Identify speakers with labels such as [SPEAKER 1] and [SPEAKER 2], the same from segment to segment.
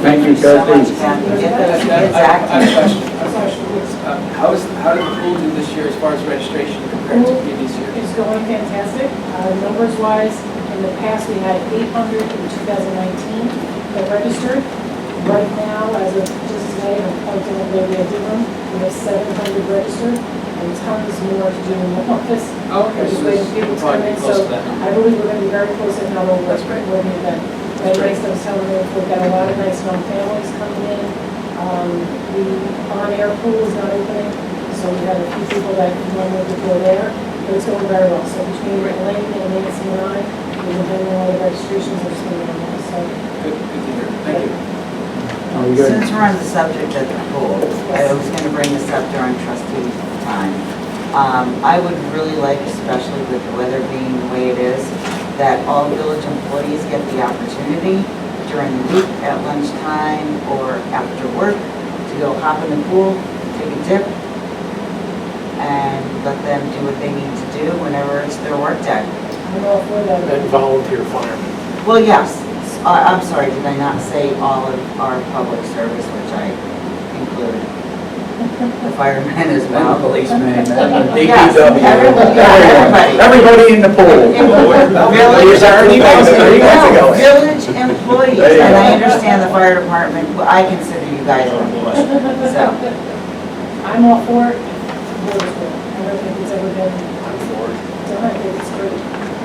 [SPEAKER 1] Thank you,
[SPEAKER 2] so much,
[SPEAKER 1] Thursday.
[SPEAKER 2] Pat. Get those
[SPEAKER 3] I
[SPEAKER 2] kids
[SPEAKER 3] I have a
[SPEAKER 2] active.
[SPEAKER 3] question. Um, How is, how did the pool do this year as far as registration compared to previous years?
[SPEAKER 4] It's going fantastic. Uh, Numbers wise, in the past, we had 800 in 2019 that registered. Right now, as of just today, I'm pointing at maybe I did one, we have 700 registered and tons more to do in the office.
[SPEAKER 3] Oh,
[SPEAKER 4] We're just waiting for people to come in, so I believe we're going to be very close if not over
[SPEAKER 3] That's
[SPEAKER 4] West
[SPEAKER 3] great.
[SPEAKER 4] Brentwood event. That
[SPEAKER 3] great.
[SPEAKER 4] makes them tell me we've got a lot of nice young families coming in. Um, The on-air pool is not opening, so we have a few people that normally would go there, but it's going very well. So between Elaine and Nancy and I, we've been doing all the registrations and so on, so.
[SPEAKER 3] Good, good to hear. Thank you.
[SPEAKER 1] Are we good?
[SPEAKER 2] Since we're on the subject of the pool, I was going to bring this up during trustee time. Um, I would really like, especially with the weather being the way it is, that all village employees get the opportunity during the week at lunchtime or after work to go hop in the pool, take a dip, and let them do what they need to do whenever it's their work day.
[SPEAKER 4] I'm all for that.
[SPEAKER 5] and volunteer firemen.
[SPEAKER 2] Well, yes, I- I'm sorry, did I not say all of our public service, which I included? The firemen as
[SPEAKER 1] Now,
[SPEAKER 2] well.
[SPEAKER 1] policeman, uh,
[SPEAKER 2] Yes, everyone- yeah, everybody.
[SPEAKER 1] DPW. Everybody in the pool. There's
[SPEAKER 2] Village-
[SPEAKER 1] our emails three months ago.
[SPEAKER 2] No, Village employees,
[SPEAKER 1] There you
[SPEAKER 2] and I
[SPEAKER 1] go.
[SPEAKER 2] understand the fire department, but I consider you guys employees, so.
[SPEAKER 4] I'm all for it. I'm all for it. I don't think it's ever been done. I think it's great.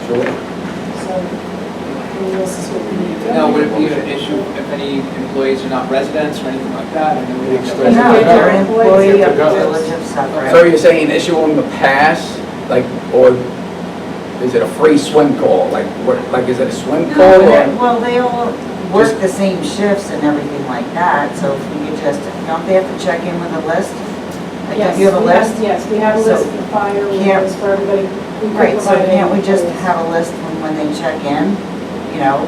[SPEAKER 1] Sure.
[SPEAKER 4] So, who else is what we need?
[SPEAKER 3] Now, would it be an issue if any employees are not residents or anything like that? I know we have
[SPEAKER 2] No,
[SPEAKER 3] that-
[SPEAKER 1] Yeah.
[SPEAKER 2] they're an employee of the
[SPEAKER 5] Yeah.
[SPEAKER 2] village of
[SPEAKER 1] So
[SPEAKER 2] Suffolk.
[SPEAKER 1] you're saying issuing the pass, like, or is it a free swim call? Like, what, like, is it a swim call
[SPEAKER 2] No, they're-
[SPEAKER 1] or?
[SPEAKER 2] Well, they all work the same shifts and everything like that, so if we could just, don't they have to check in with a list? Like,
[SPEAKER 4] Yes,
[SPEAKER 2] don't you have a
[SPEAKER 4] we
[SPEAKER 2] list?
[SPEAKER 4] Yes, we have a
[SPEAKER 2] So-
[SPEAKER 4] list for fire, we have
[SPEAKER 2] Can't-
[SPEAKER 4] a list for everybody. We could
[SPEAKER 2] Right, so
[SPEAKER 4] provide
[SPEAKER 2] can't we just
[SPEAKER 4] employees.
[SPEAKER 2] have a list when, when they check in, you know?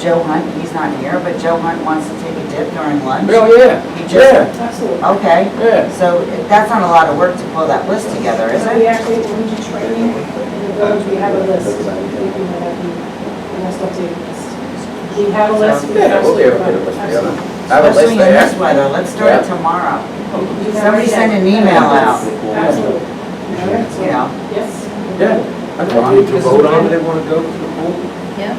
[SPEAKER 2] Joe Hunt, he's not here, but Joe Hunt wants to take a dip during lunch.
[SPEAKER 1] Oh, yeah,
[SPEAKER 2] You just-
[SPEAKER 1] yeah,
[SPEAKER 2] Oh,
[SPEAKER 4] Absolutely.
[SPEAKER 2] Okay,
[SPEAKER 1] yeah.
[SPEAKER 2] so that's not a lot of work to pull that list together, is
[SPEAKER 4] So we
[SPEAKER 2] it?
[SPEAKER 4] actually, when we do training in the village, we have a list. We do have the, the most updated list. We have a list. we
[SPEAKER 1] Yeah, we'll be able to get a
[SPEAKER 4] absolutely provide-
[SPEAKER 1] list together.
[SPEAKER 4] absolutely.
[SPEAKER 1] I have a list
[SPEAKER 2] Especially in this
[SPEAKER 1] there.
[SPEAKER 2] weather, let's start
[SPEAKER 1] Yeah.
[SPEAKER 2] it tomorrow,
[SPEAKER 4] You have
[SPEAKER 2] Somebody
[SPEAKER 4] it.
[SPEAKER 2] send an email out.
[SPEAKER 4] Absolutely. Okay, so-
[SPEAKER 2] you know?
[SPEAKER 4] Yes.
[SPEAKER 1] Yeah.
[SPEAKER 5] Do you need to vote on it?
[SPEAKER 3] want to go to the pool?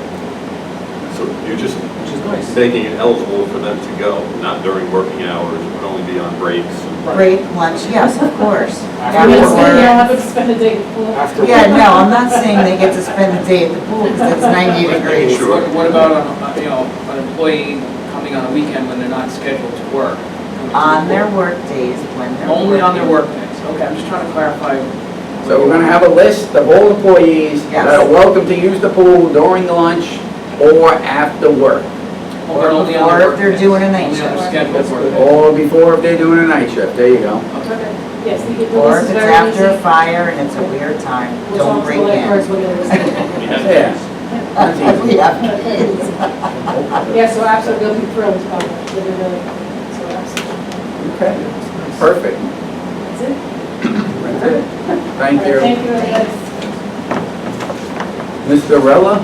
[SPEAKER 6] So you're just
[SPEAKER 3] Which is nice.
[SPEAKER 6] making it eligible for them to go, not during working hours, it would only be on breaks. and-
[SPEAKER 2] Break, lunch, yes, of course.
[SPEAKER 4] I mean, so
[SPEAKER 2] After
[SPEAKER 4] you
[SPEAKER 2] work.
[SPEAKER 4] have to spend a day in the pool.
[SPEAKER 5] After
[SPEAKER 2] Yeah, no, I'm not saying they get to spend the day at the pool because it's 90 degrees.
[SPEAKER 6] Sure.
[SPEAKER 3] What what about, on a- you know, an employee coming on a weekend when they're not scheduled to work?
[SPEAKER 2] On their work days when they're.
[SPEAKER 3] Only on their
[SPEAKER 2] working.
[SPEAKER 3] work days, okay, I'm just trying to clarify.
[SPEAKER 1] So we're gonna have a list of all employees that are
[SPEAKER 2] Yes.
[SPEAKER 1] welcome to use the pool during lunch or after work.
[SPEAKER 3] Or only on
[SPEAKER 2] Or
[SPEAKER 3] their
[SPEAKER 2] if
[SPEAKER 3] work
[SPEAKER 2] they're
[SPEAKER 3] days.
[SPEAKER 2] doing a night
[SPEAKER 3] Only on their
[SPEAKER 2] shift.
[SPEAKER 3] scheduled work days.
[SPEAKER 1] Or before if they're doing a night shift, there you go.
[SPEAKER 3] Okay.
[SPEAKER 4] Yes, the the
[SPEAKER 2] Or
[SPEAKER 4] list is
[SPEAKER 2] if it's
[SPEAKER 4] very easy.
[SPEAKER 2] after a fire and it's a weird time,
[SPEAKER 4] We'll
[SPEAKER 2] don't
[SPEAKER 4] talk to
[SPEAKER 2] bring
[SPEAKER 4] the lifeguards,
[SPEAKER 2] in.
[SPEAKER 4] we'll get a list.
[SPEAKER 6] We have
[SPEAKER 1] Yeah.
[SPEAKER 2] Uh, yeah, kids.
[SPEAKER 4] Yeah, so absolutely, they'll be thrilled about it, they'll be really, so absolutely,
[SPEAKER 1] Okay, perfect.
[SPEAKER 4] that's it.
[SPEAKER 1] That's it. Thank
[SPEAKER 4] All right,
[SPEAKER 1] you.
[SPEAKER 4] Thank you, everybody.
[SPEAKER 1] Mr. Rella?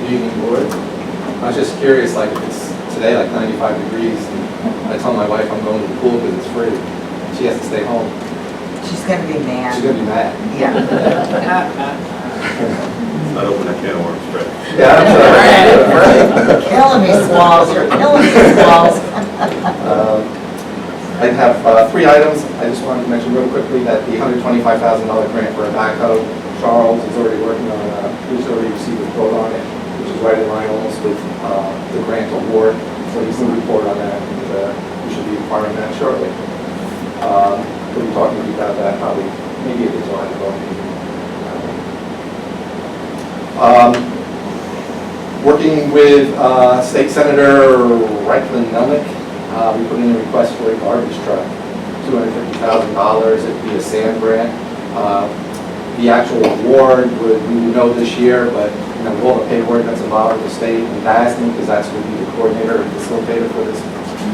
[SPEAKER 7] Good evening, board. I was just curious, like, it's today like 95 degrees, and I tell my wife I'm going to the pool because it's free. She has to stay home.
[SPEAKER 2] She's gonna be
[SPEAKER 7] She's
[SPEAKER 2] mad,
[SPEAKER 7] gonna be mad.
[SPEAKER 2] yeah.
[SPEAKER 6] It's not open a can of worms, right?
[SPEAKER 7] Yeah.
[SPEAKER 2] You're Killing me, Smalls, you're killing me, Smalls.
[SPEAKER 7] Um, I have uh, three items. I just wanted to mention real quickly that the $125,000 grant for a backhoe, Charles is already working on, uh, he's already received a quote on it, which is right in line almost with uh, the grant award. So he's going to report on that, and uh, we should be acquiring that shortly. Um, We'll be talking to you about that probably, maybe at the July board meeting. Um, working with uh, State Senator Reichlin Melnick, uh, we put in a request for a garbage truck, $250,000, it'd be a sand grant. Uh, The actual award would, we would know this year, but, you know, with all the paperwork that's involved with the state and DASNY, because that's going to be the coordinator and facilitator for this,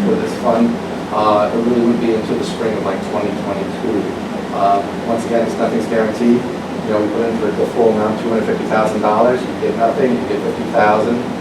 [SPEAKER 7] for this fund, uh, it really would be until the spring of like 2022. Uh, Once again, it's nothing's guaranteed, you know, we put in for the full amount, $250,000, you get nothing, you get 50,000,